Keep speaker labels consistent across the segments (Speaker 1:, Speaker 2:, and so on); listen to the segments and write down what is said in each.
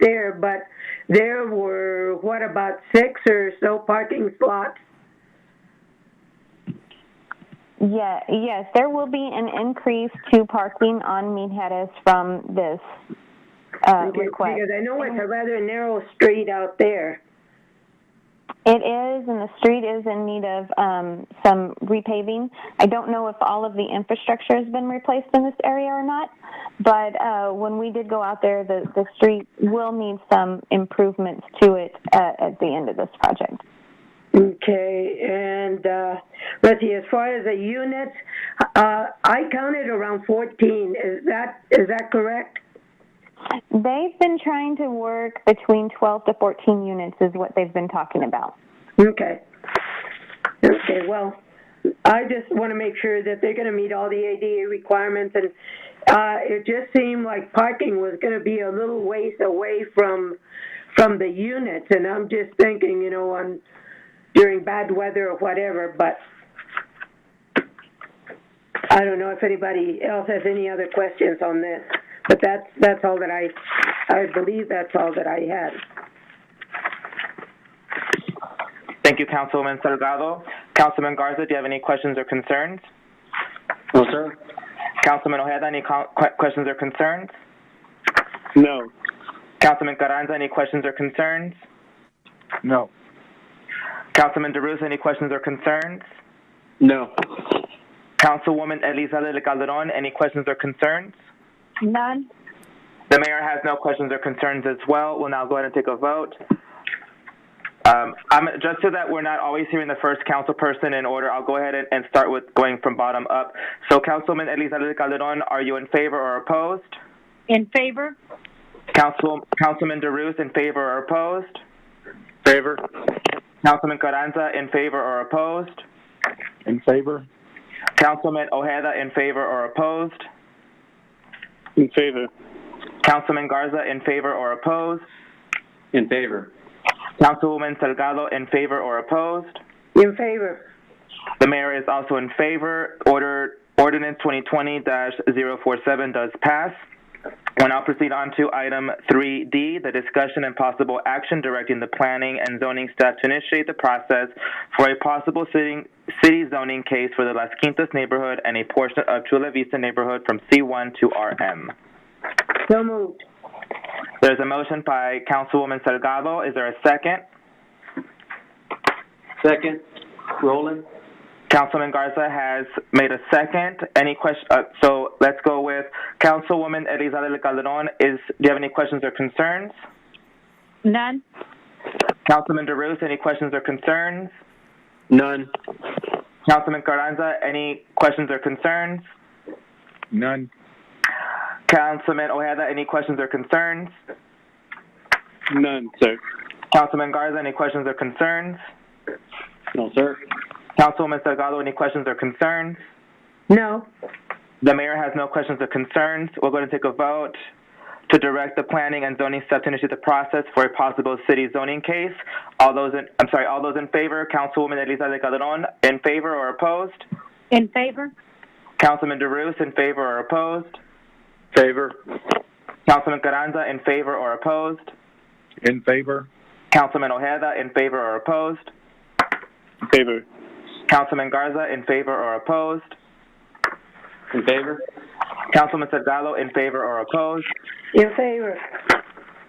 Speaker 1: there, but there were, what, about six or so parking slots?
Speaker 2: Yeah, yes, there will be an increase to parking on Mean from this uh,
Speaker 1: Because
Speaker 2: request.
Speaker 1: because I know it's a rather narrow street out there.
Speaker 2: It is, and the street is in need of um, some repaving. I don't know if all of the infrastructure has been replaced in this area or not, but uh, when we did go out there, the, the street will need some improvements to it uh, at the end of this project.
Speaker 1: Okay, and uh, let's see, as far as the units, uh, I counted around 14. Is that, is that correct?
Speaker 2: They've been trying to work between 12 to 14 units, is what they've been talking about.
Speaker 1: Okay. Okay, well, I just want to make sure that they're going to meet all the ADA requirements, and uh, it just seemed like parking was going to be a little ways away from from the units, and I'm just thinking, you know, on during bad weather or whatever, but I don't know if anybody else has any other questions on this, but that's that's all that I I believe that's all that I had.
Speaker 3: Thank you, Councilwoman Salgado. Councilman Garza, do you have any questions or concerns?
Speaker 4: No, sir.
Speaker 3: Councilman Ojeda, any co- que- questions or concerns?
Speaker 4: No.
Speaker 3: Councilman Carranza, any questions or concerns?
Speaker 4: No.
Speaker 3: Councilman DeRusa, any questions or concerns?
Speaker 4: No.
Speaker 3: Councilwoman Elizalde Calderon, any questions or concerns?
Speaker 2: None.
Speaker 3: The mayor has no questions or concerns as well. We'll now go ahead and take a vote. Um, I'm, just so that we're not always hearing the first council person in order, I'll go ahead and, and start with going from bottom up. So Councilman Elizalde Calderon, are you in favor or opposed?
Speaker 5: In favor?
Speaker 3: Council, Councilman DeRusse, in favor or opposed?
Speaker 4: Favor?
Speaker 3: Councilman Carranza, in favor or opposed?
Speaker 4: In favor?
Speaker 3: Councilman Ojeda, in favor or opposed?
Speaker 4: In favor.
Speaker 3: Councilman Garza, in favor or opposed?
Speaker 4: In favor.
Speaker 3: Councilwoman Salgado, in favor or opposed?
Speaker 1: In favor.
Speaker 3: The mayor is also in favor. Order, ordinance 2020-047 does pass. We'll now proceed on to item 3D, the discussion and possible action directing the planning and zoning staff to initiate the process for a possible city, city zoning case for the Las Quintas neighborhood and a portion of Chula Vista neighborhood from C1 to RM.
Speaker 1: So moved.
Speaker 3: There's a motion by Councilwoman Salgado. Is there a second?
Speaker 4: Second? Roland?
Speaker 3: Councilman Garza has made a second. Any question? Uh, so let's go with Councilwoman Elizalde Calderon. Is do you have any questions or concerns?
Speaker 5: None?
Speaker 3: Councilman DeRusse, any questions or concerns?
Speaker 4: None.
Speaker 3: Councilman Carranza, any questions or concerns?
Speaker 4: None.
Speaker 3: Councilman Ojeda, any questions or concerns?
Speaker 4: None, sir.
Speaker 3: Councilman Garza, any questions or concerns?
Speaker 4: No, sir.
Speaker 3: Councilwoman Salgado, any questions or concerns?
Speaker 1: No.
Speaker 3: The mayor has no questions or concerns. We're going to take a vote to direct the planning and zoning staff to initiate the process for a possible city zoning case. All those in, I'm sorry, all those in favor, Councilwoman Elizalde Calderon, in favor or opposed?
Speaker 5: In favor?
Speaker 3: Councilman DeRusse, in favor or opposed?
Speaker 4: Favor?
Speaker 3: Councilman Carranza, in favor or opposed?
Speaker 4: In favor?
Speaker 3: Councilman Ojeda, in favor or opposed?
Speaker 4: Favor.
Speaker 3: Councilman Garza, in favor or opposed?
Speaker 4: In favor?
Speaker 3: Councilman Salgado, in favor or opposed?
Speaker 1: In favor.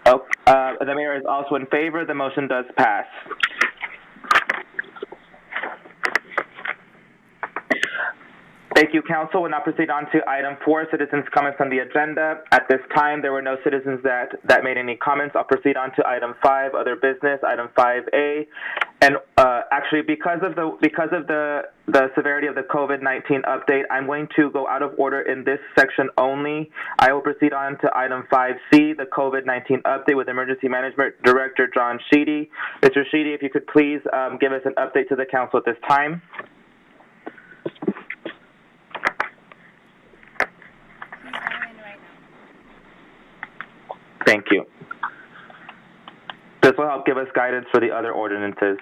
Speaker 3: Oh, uh, the mayor is also in favor. The motion does pass. Thank you, council. We'll now proceed on to item four, citizens' comments on the agenda. At this time, there were no citizens that, that made any comments. I'll proceed on to item five, other business, item five A. And, uh, actually, because of the, because of the, the severity of the COVID-19 update, I'm going to go out of order in this section only. I will proceed on to item five C, the COVID-19 update with Emergency Management Director John Sheedy. Mr. Sheedy, if you could please, um, give us an update to the council at this time. Thank you. This will help give us guidance for the other ordinances.